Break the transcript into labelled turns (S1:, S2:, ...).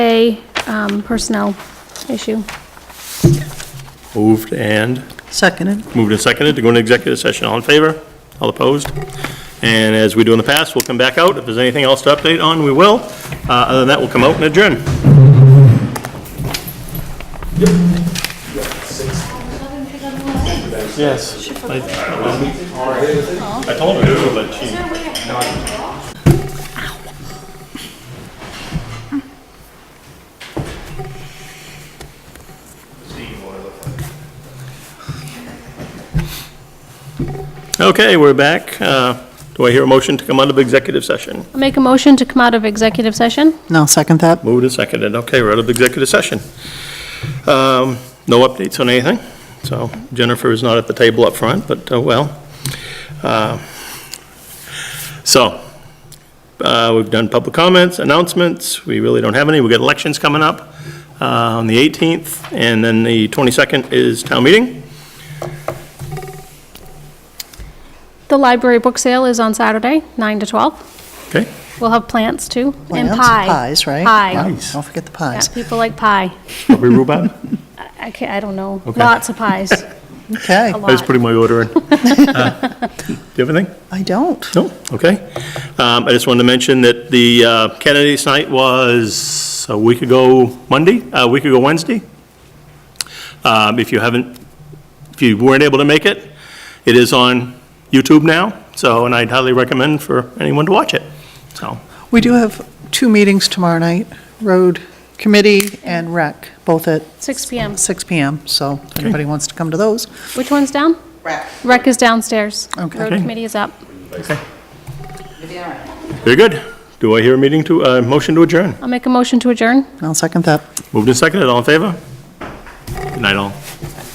S1: A um, personnel issue.
S2: Moved and,
S3: Seconded.
S2: moved and seconded to go into executive session. All in favor? All opposed? And as we do in the past, we'll come back out. If there's anything else to update on, we will. Uh, Other than that, we'll come out and adjourn. Yes. I I told her to, but she... Okay, we're back. Uh, Do I hear a motion to come out of executive session?
S1: I'll Make a motion to come out of executive session.
S3: No, second that.
S2: Moved and seconded. Okay, we're out of executive session. Um, No updates on anything, so Jennifer is not at the table up front, but, uh, well. Uh, So, uh, we've done public comments, announcements, we really don't have any, we've got elections coming up uh, on the 18th, and then the 22nd is town meeting.
S1: The library book sale is on Saturday, 9 to 12.
S2: Okay,
S1: We'll have plants too, and
S3: Plants,
S1: pie.
S3: Pies, right? Yeah,
S1: Pie.
S3: Don't forget the
S1: Yeah,
S3: pies.
S1: People like pie.
S2: Aubrey Rubat?
S1: I can't, I don't know. Lots of pies,
S3: Okay,
S1: a
S2: I was
S1: lot.
S2: putting my order in. Uh, Do you have anything?
S3: I don't.
S2: No, okay. Um, I just wanted to mention that the uh, Kennedy's night was a week ago Monday, a week ago Wednesday. Um, If you haven't, if you weren't able to make it, it is on YouTube now, so, and I'd highly recommend for anyone to watch it. So,
S3: We do have two meetings tomorrow night, Road Committee and Rec, both at
S1: 6 PM.
S3: 6 PM, so if anybody wants to come to those.
S1: Which one's down?
S4: Rec.
S1: Rec is downstairs.
S3: Okay.
S1: Road
S2: Okay.
S1: committee is up.
S2: very good. Do I hear a meeting to, uh motion to adjourn?
S1: I'll make a motion to adjourn.
S3: I'll second that.
S2: Moved and seconded, all in favor? Good night, all.